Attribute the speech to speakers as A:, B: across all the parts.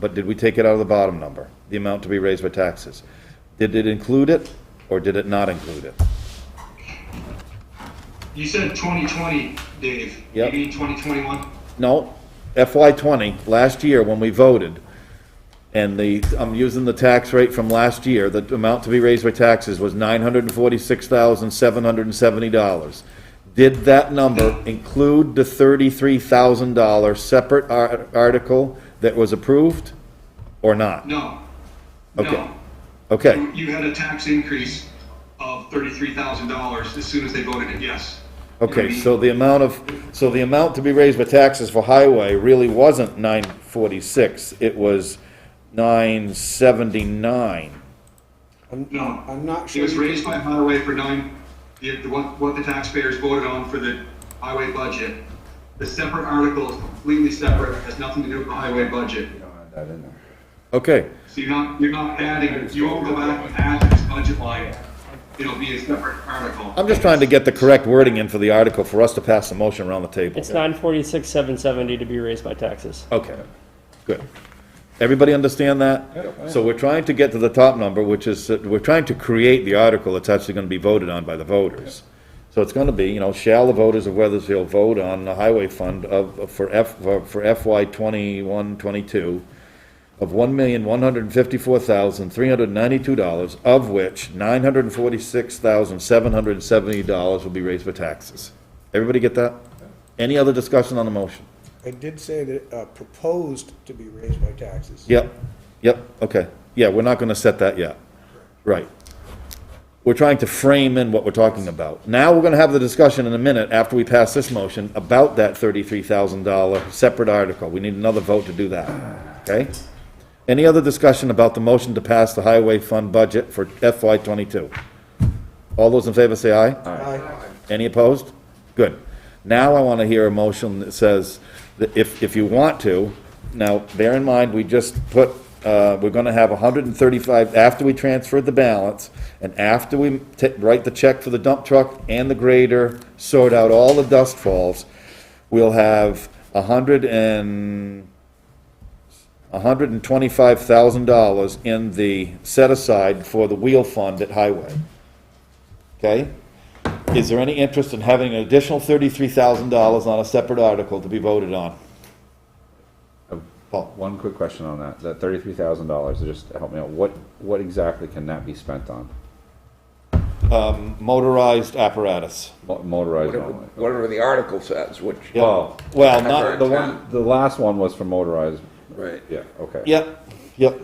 A: But did we take it out of the bottom number, the amount to be raised by taxes? Did it include it, or did it not include it?
B: You said 2020, Dave.
A: Yep.
B: Maybe 2021?
A: No, FY twenty, last year when we voted, and the, I'm using the tax rate from last year, the amount to be raised by taxes was nine hundred and forty-six thousand, seven hundred and seventy dollars. Did that number include the thirty-three thousand dollar separate ar- article that was approved, or not?
B: No.
A: Okay.
B: No.
A: Okay,
B: You- You had a tax increase of $33,000 as soon as they voted it yes.
A: okay, so the amount of, so the amount to be raised by taxes for highway really wasn't nine forty-six, it was nine seventy-nine.
B: No.
C: I'm not
B: It
C: sure.
B: was
C: you
B: raised by highway for nine, the, the- what, what the taxpayers voted on for the highway budget. The separate article is completely separate, has nothing to do with the highway budget.
A: Okay,
B: So you're not, you're not adding, you won't go back and add this budget line. It'll be a separate article.
A: I'm just trying to get the correct wording in for the article for us to pass the motion around the table.
D: It's nine forty-six, seven seventy to be raised by taxes.
A: Okay, good. Everybody understand that? So we're trying to get to the top number, which is, that we're trying to create the article that's actually gonna be voted on by the voters. So it's gonna be, you know, shall the voters of Weathersfield vote on the highway fund of, for F, for- for FY twenty-one, twenty-two of one million, one hundred and fifty-four thousand, three hundred and ninety-two dollars, of which nine hundred and forty-six thousand, seven hundred and seventy dollars will be raised for taxes. Everybody get that? Any other discussion on the motion?
C: I did say that, uh, proposed to be raised by taxes.
A: Yep, yep, okay. Yeah, we're not gonna set that yet. Right. We're trying to frame in what we're talking about. Now, we're gonna have the discussion in a minute, after we pass this motion, about that thirty-three thousand dollar separate article. We need another vote to do that, okay? Any other discussion about the motion to pass the highway fund budget for FY twenty-two? All those in favor say aye?
C: Aye.
A: Any opposed? Good. Now I want to hear a motion that says, that if, if you want to, now, bear in mind, we just put, uh, we're going to have 135, after we transferred the balance, and after we ta- write the check for the dump truck and the grader, sort out all the dust falls, we'll have 100 and $125,000 in the set aside for the wheel fund at Highway. Okay? Is there any interest in having an additional $33,000 on a separate article to be voted on? Paul?
E: One quick question on that, that thirty-three thousand dollars, just help me out, what, what exactly can that be spent on?
A: Motorized apparatus.
E: Mo- Motorized
F: Whatever-
E: only?
F: Whatever the article says, which,
E: Oh,
A: Well,
F: Separate.
A: not,
E: the one, the last one was for motorized,
F: right,
E: yeah, okay.
A: yep, yep,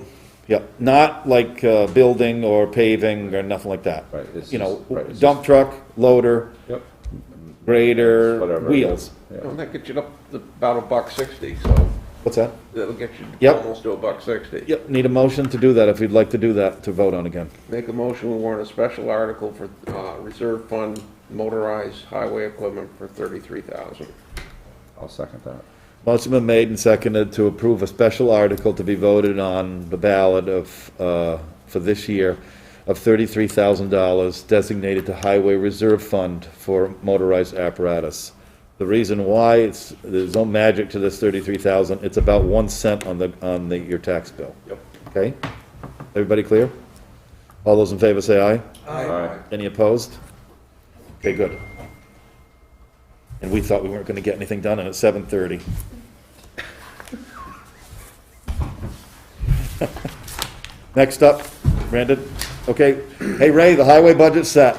A: yep. Not like uh, building or paving or nothing like that.
E: Right, it's
A: You know,
E: just- right, it's
A: dump truck, loader,
E: Yep,
A: grader,
E: whatever.
A: wheels.
F: well, that gets you up to about a buck sixty, so
A: What's that?
F: that'll get you
A: Yep.
F: almost to a buck sixty.
A: Yep, need a motion to do that if you'd like to do that, to vote on again.
F: Make a motion, we warrant a special article for, uh, reserve fund motorized highway equipment for thirty-three thousand.
E: I'll second that.
A: Motion been made and seconded to approve a special article to be voted on the ballot of, uh, for this year of thirty-three thousand dollars designated to Highway Reserve Fund for motorized apparatus. The reason why, it's, there's no magic to this thirty-three thousand, it's about one cent on the, on the, your tax bill.
F: Yep.
A: Okay? Everybody clear? All those in favor say aye.
E: Aye.
A: Any opposed? Okay, good. And we thought we weren't gonna get anything done, and it's seven thirty. Next up, Brandon, okay, hey Ray, the highway budget's set,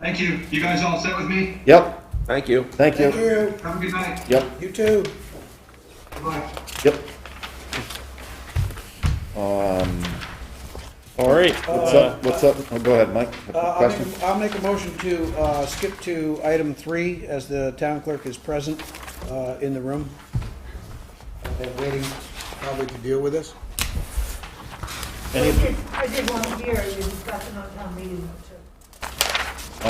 B: Thank you. You guys all set with me?
A: yep,
F: Thank you.
A: thank
C: Thank
A: you,
C: you,
B: Have a good night.
A: yep,
C: you too.
B: Bye.
A: yep.
D: All right,
A: What's up, what's up, oh, go ahead, Mike,
C: Uh, I'll
A: question?
C: make, a- I'll make a motion to, uh, skip to item three, as the town clerk is present, uh, in the room. And waiting probably to deal with this.
G: I did- I did want to hear you discussing on town meeting, too.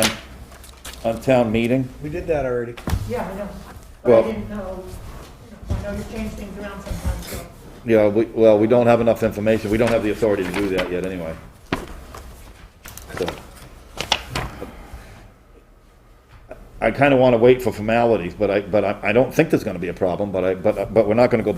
A: On, on town meeting,
C: We did that already.
G: Yeah, I know. But
A: Well-
G: I didn't know, you know, I know you change things around sometimes, so.
A: yeah, we, well, we don't have enough information, we don't have the authority to do that yet, anyway. So. I, I kinda wanna wait for formalities, but I, but I, I don't think there's gonna be a problem, but I, but, but we're not gonna go back